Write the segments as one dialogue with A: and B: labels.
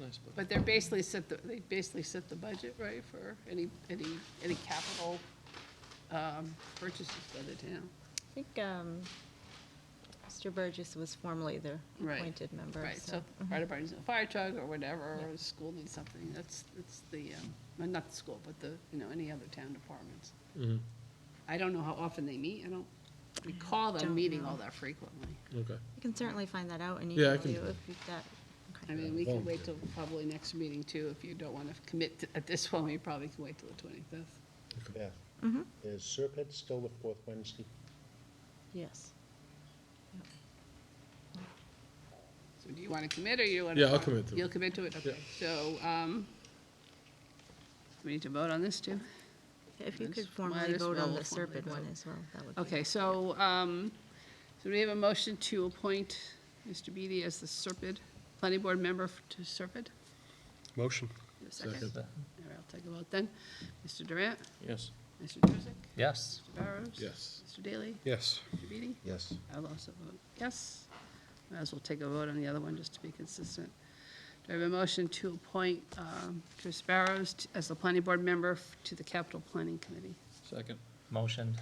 A: nice budget.
B: But they're basically set, the they basically set the budget, right, for any, any, any capital um, purchases by the town.
C: I think um, Mr. Burgess was formerly the
B: Right.
C: appointed member. Mhm.
B: Right, so mhm. if fire department needs a fire truck or whatever, or the school needs something, that's, that's the, um, well, not the school, but the, you know, any other town departments.
A: Mhm.
B: I don't know how often they meet, I don't recall them
C: Don't
B: meeting
C: know.
B: all that frequently.
A: Okay.
C: You can certainly find that out and
A: Yeah, I
C: email
A: can-
C: you if you've got. okay.
B: I mean, we can wait till probably next meeting too, if you don't want to commit to- at this one, we probably can wait till the twenty-fifth.
D: Beth,
A: Mm-hmm.
C: Mhm.
D: is Serpent still the fourth Wednesday?
C: Yes.
B: So do you want to commit or you want to?
A: Yeah, I'll commit to it.
B: You'll commit to it, okay. So, um, we need to vote on this too?
C: If you
B: Might
C: could
B: as- might
C: formally
B: as
C: vote on
B: well formally
C: the Serpent one
B: vote.
C: as well, that would be.
B: Okay, so, um, so we have a motion to appoint Mr. Beatty as the Serpid, planning board member f- to Serpid?
A: Motion.
B: Is there a Second.
A: Second.
B: All right, I'll take a vote then. Mr. Durant,
A: Yes.
B: Mr. Jurassic,
E: Yes.
B: Mr. Barrows?
A: Yes.
B: Mr. Daly,
A: Yes.
B: Mr. Beatty?
D: Yes.
B: I'll also vote yes. Might as well take a vote on the other one, just to be consistent. Do I have a motion to appoint um, Chris Barrows t- as the planning board member f- to the capital planning committee?
A: Second.
E: Motion.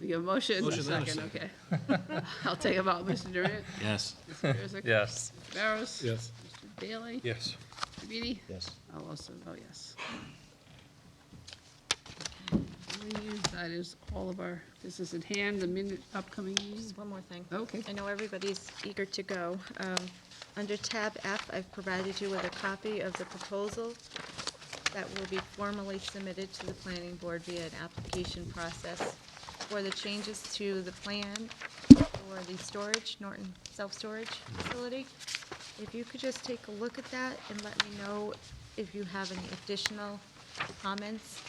B: You have a motion?
A: Motion and a
B: Second, okay. I'll take a vote, Mr. Durant.
A: Yes.
B: Mr. Jurassic?
E: Yes.
B: Mr. Barrows?
A: Yes.
B: Mr. Bailey?
A: Yes.
B: Mr. Beatty?
D: Yes.
B: I'll also vote yes. That is all of our business at hand, the minute upcoming meetings.
C: Just one more thing.
B: Okay.
C: I know everybody's eager to go. Um, Under tab F, I've provided you with a copy of the proposal that will be formally submitted to the planning board via an application process for the changes to the plan for the storage, Norton Self-Storage Facility. If you could just take a look at that and let me know if you have any additional comments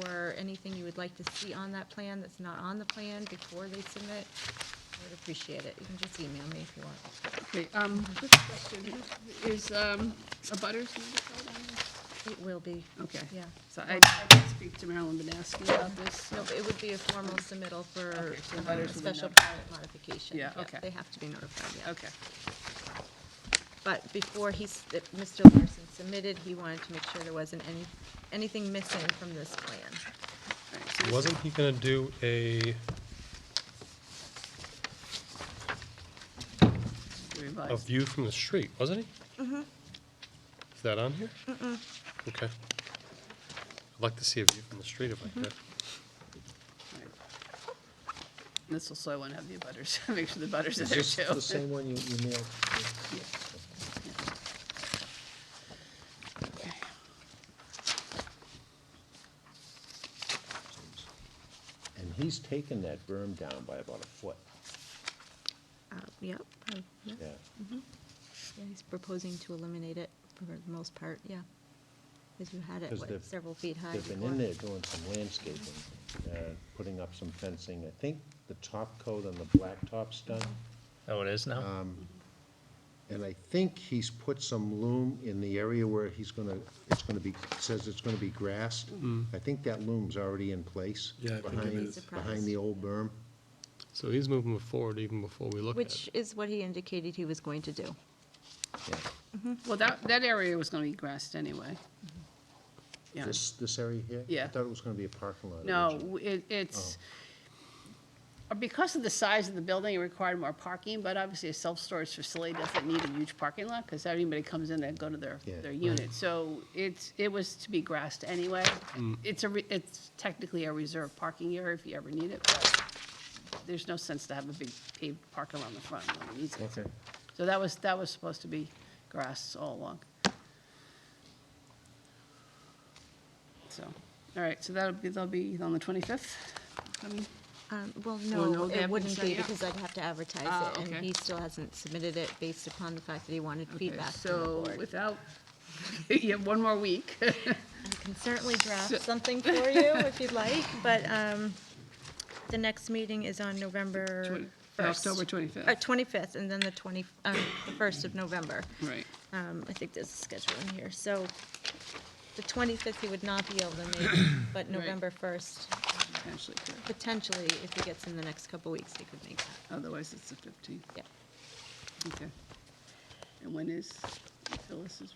C: or anything you would like to see on that plan that's not on the plan before they submit, I would appreciate it. You can just email me if you want.
B: Okay, um, good question. Is, um, a butters notified on this?
C: It will be.
B: Okay.
C: Yeah.
B: So I, I did speak to Marilyn Banasky about this,
C: No,
B: so,
C: but it would be a formal submittal for
B: Okay, so
C: um,
B: butters will
C: a
B: be
C: special
B: notified.
C: permit modification.
B: Yeah, okay.
C: They have to be notified, yeah.
B: okay.
C: But before he's, that Mr. Larson submitted, he wanted to make sure there wasn't any, anything missing from this plan.
B: All right, so this-
F: Wasn't he gonna do a, a
B: Revised.
F: view from the street, wasn't he? Mm-hmm. Is that on here? Mm-mm. Okay. I'd like to see a view from the street if I could.
B: All right. This will, so I want to have the butters, make sure the butters are
D: Is
B: there
D: this
B: too.
D: the same one you emailed?
B: Okay.
D: And he's taken that berm down by about a foot,
C: Uh, Yep, uh, yeah,
A: Mm-hmm.
D: yeah.
C: yeah, he's proposing to eliminate it for the most part, yeah. Because you had it,
D: 'Cause
C: what,
D: they've-
C: several feet high
D: They've been
C: before.
D: in there doing some landscaping,
A: Mm-hmm.
D: uh, putting up some fencing. I think the top coat on the blacktop's done.
E: Oh, it is now?
D: And I think he's put some loom in the area where he's gonna, it's gonna be, says it's gonna be grass. I think that loom's already in place.
A: Mm-hmm. Yeah, I think it
D: behind-
C: is.
D: Behind the old berm.
F: So he's moving forward even before we look at
C: Which
F: it.
C: is what he indicated he was going to do.
D: Yeah.
B: Well, that, that area was going to be grassed anyway. Yeah.
D: This, this area here?
B: Yeah.
D: I thought it was gonna be a parking lot. originally.
B: No, it, it's, uh, because of the size of the building, it required more parking, but obviously a self-storage facility doesn't need a huge parking lot, because everybody comes in and go to their,
D: Yeah.
B: their unit. So it's, it was to be grassed anyway. It's a, re- it's technically a reserved parking area if you ever need it, but there's no sense to have a big paved parking lot in the front, no one needs it.
D: Okay.
B: So that was, that was supposed to be grass all along. So, all right, so that'll be, that'll be on the 25th? Um,
C: Um, Well,
B: Well, no,
C: no,
B: they
C: it
B: haven't
C: wouldn't
B: decided
C: be,
B: yet.
C: because I'd have to
B: Ah,
C: advertise it, and
B: okay.
C: he still hasn't submitted it based upon the fact that he wanted
B: okay,
C: feedback from the
B: So
C: board.
B: without, you have one more week. All
C: I can certainly draft something for you if you'd like, but um, the next meeting is on November
B: Twen-
C: 1st.
B: uh, October 25th.
C: Uh, 25th, and then the 20, um, the 1st of November.
B: Right,
C: Um, I think there's a schedule in here, so the 25th he would not be able to make, but November 1st,
B: potentially, yeah.
C: potentially, if he gets in the next couple weeks, he could make that,
B: otherwise it's the 15th,
C: yeah.
B: okay. And when is Phyllis's